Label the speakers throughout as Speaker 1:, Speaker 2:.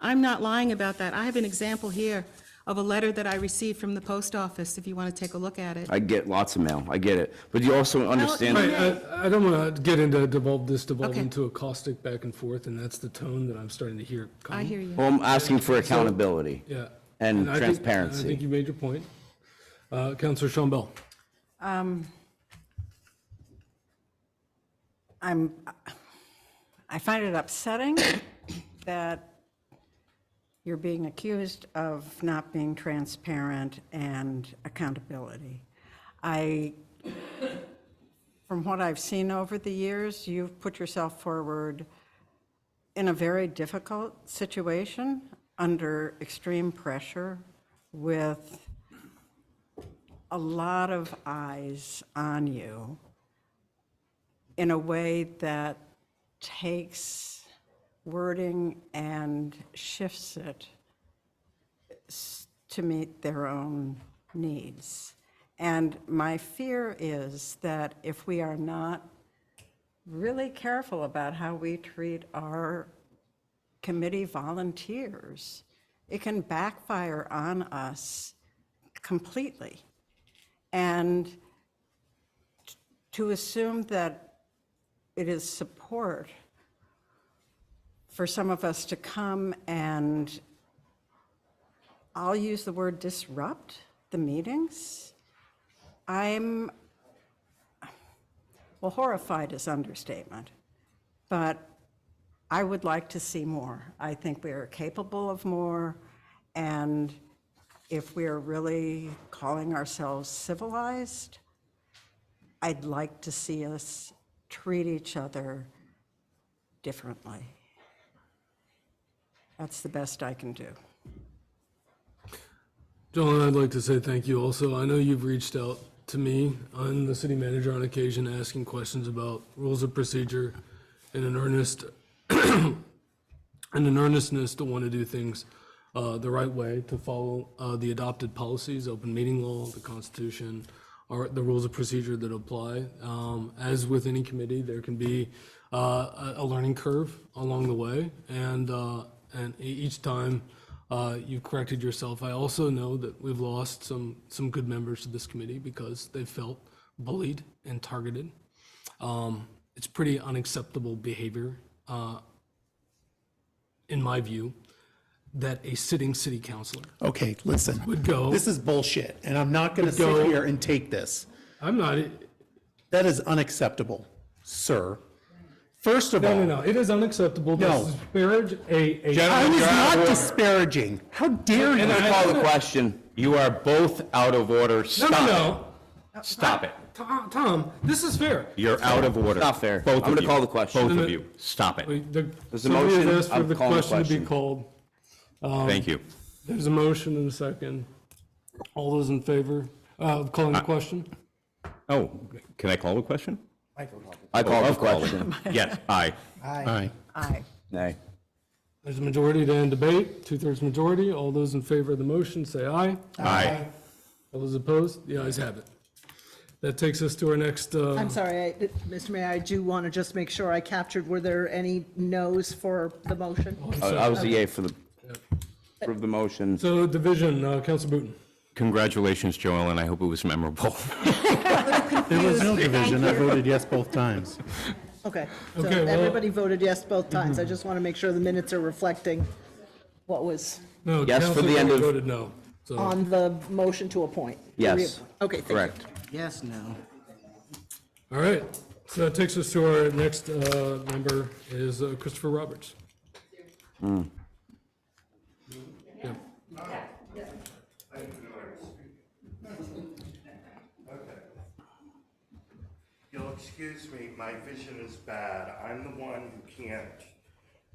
Speaker 1: I'm not lying about that. I have an example here of a letter that I received from the post office, if you want to take a look at it.
Speaker 2: I get lots of mail, I get it, but you also
Speaker 1: Right.
Speaker 2: understand,
Speaker 1: Okay.
Speaker 3: I, I don't want to get into devolve, this devolve
Speaker 1: Okay.
Speaker 3: into a caustic back and forth, and that's the tone that I'm starting to hear.
Speaker 1: I
Speaker 3: come.
Speaker 1: hear you.
Speaker 2: well, I'm asking for accountability.
Speaker 3: Yeah.
Speaker 2: And
Speaker 3: I think-
Speaker 2: transparency.
Speaker 3: I think you made your point. Uh, Counselor Sean Bell,
Speaker 4: Um, I'm, I find it upsetting that you're being accused of not being transparent and accountability. I, from what I've seen over the years, you've put yourself forward in a very difficult situation, under extreme pressure, with a lot of eyes on you in a way that takes wording and shifts it s- to meet their own needs. And my fear is that if we are not really careful about how we treat our committee volunteers, it can backfire on us completely. And to assume that it is support for some of us to come and, I'll use the word disrupt the meetings. I'm, well, horrified is understatement, but I would like to see more. I think we are capable of more, and if we are really calling ourselves civilized, I'd like to see us treat each other differently. That's the best I can do.
Speaker 3: John, I'd like to say thank you also. I know you've reached out to me and the city manager on occasion, asking questions about rules of procedure in an earnest, in an earnestness to want to do things uh, the right way, to follow uh, the adopted policies, open meeting law, the Constitution, or the rules of procedure that apply. Um, As with any committee, there can be uh, a a learning curve along the way, and, uh, and e- each time uh, you've corrected yourself. I also know that we've lost some, some good members to this committee because they felt bullied and targeted. Um, It's pretty unacceptable behavior, uh, in my view, that a sitting city councilor
Speaker 5: Okay, listen.
Speaker 3: would go,
Speaker 5: This is bullshit, and I'm not going to sit
Speaker 3: go-
Speaker 5: here and take this.
Speaker 3: I'm not,
Speaker 5: That is unacceptable, sir. First of all,
Speaker 3: no, no, no, it is unacceptable to
Speaker 5: No.
Speaker 3: disparage a, a.
Speaker 5: I was
Speaker 2: you're out
Speaker 5: not
Speaker 2: of order.
Speaker 5: disparaging. How dare you?
Speaker 2: I call the question, you are both out of order,
Speaker 3: No, no,
Speaker 2: stop
Speaker 3: no,
Speaker 2: it, stop it.
Speaker 3: Tom, Tom, this is fair.
Speaker 2: You're out of order. Not fair. I'm
Speaker 6: Both of
Speaker 2: gonna
Speaker 6: you.
Speaker 2: call the question.
Speaker 6: Both of you, stop it.
Speaker 3: Wait, the-
Speaker 2: There's a
Speaker 3: Somebody has
Speaker 2: motion.
Speaker 3: asked for
Speaker 2: I'm
Speaker 3: the
Speaker 2: calling the
Speaker 3: question to
Speaker 2: question.
Speaker 3: be called.
Speaker 7: Um,
Speaker 6: Thank you.
Speaker 3: There's a motion and a second. All those in favor uh, of calling the question?
Speaker 6: Oh, can I call the question?
Speaker 2: I call the
Speaker 6: Of calling.
Speaker 2: question.
Speaker 6: Yes, aye.
Speaker 5: Aye.
Speaker 4: Aye.
Speaker 2: Nay.
Speaker 3: There's a majority to end debate, two-thirds majority. All those in favor of the motion, say aye.
Speaker 6: Aye.
Speaker 3: All those opposed, the ayes have it. That takes us to our next, uh,
Speaker 8: I'm sorry, I- Mr. Mayor, I do want to just make sure I captured, were there any noes for the motion?
Speaker 2: I I was a yay for the, for the motion.
Speaker 3: so division, uh, Counsel Booton.
Speaker 6: Congratulations, Joel, and I hope it was memorable.
Speaker 5: There was no division. I voted yes both times.
Speaker 8: Okay, so
Speaker 3: Okay, well-
Speaker 8: everybody voted yes both times. I just want to make sure the minutes are reflecting what was
Speaker 3: No,
Speaker 2: Yes, for
Speaker 3: Counsel
Speaker 2: the end
Speaker 3: Booton
Speaker 2: of-
Speaker 3: voted no. So
Speaker 8: on the motion to appoint. to
Speaker 2: Yes.
Speaker 8: reappoint. Okay, thank you.
Speaker 2: Correct.
Speaker 1: Yes, no.
Speaker 3: All right, so that takes us to our next uh, member is uh, Christopher Roberts.
Speaker 2: Hmm.
Speaker 3: Yeah.
Speaker 7: You'll excuse me, my vision is bad. I'm the one who can't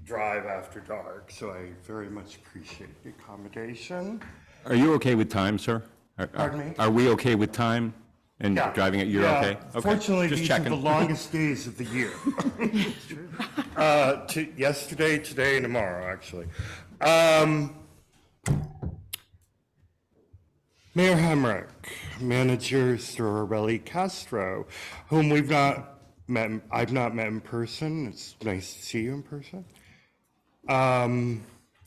Speaker 7: drive after dark, so I very much appreciate the accommodation.
Speaker 6: Are you okay with time, sir? Are- are-
Speaker 7: Pardon me?
Speaker 6: Are we okay with time and
Speaker 7: Yeah.
Speaker 6: driving it? You're
Speaker 7: Yeah.
Speaker 6: okay? Okay,
Speaker 7: Fortunately,
Speaker 6: just
Speaker 7: these are the
Speaker 6: checking.
Speaker 7: longest days of the year. Uh, to- Yesterday, today, and tomorrow, actually. Um, Mayor Hemrick, manager Sorelli Castro, whom we've not met, I've not met in person. It's nice to see you in person. Um,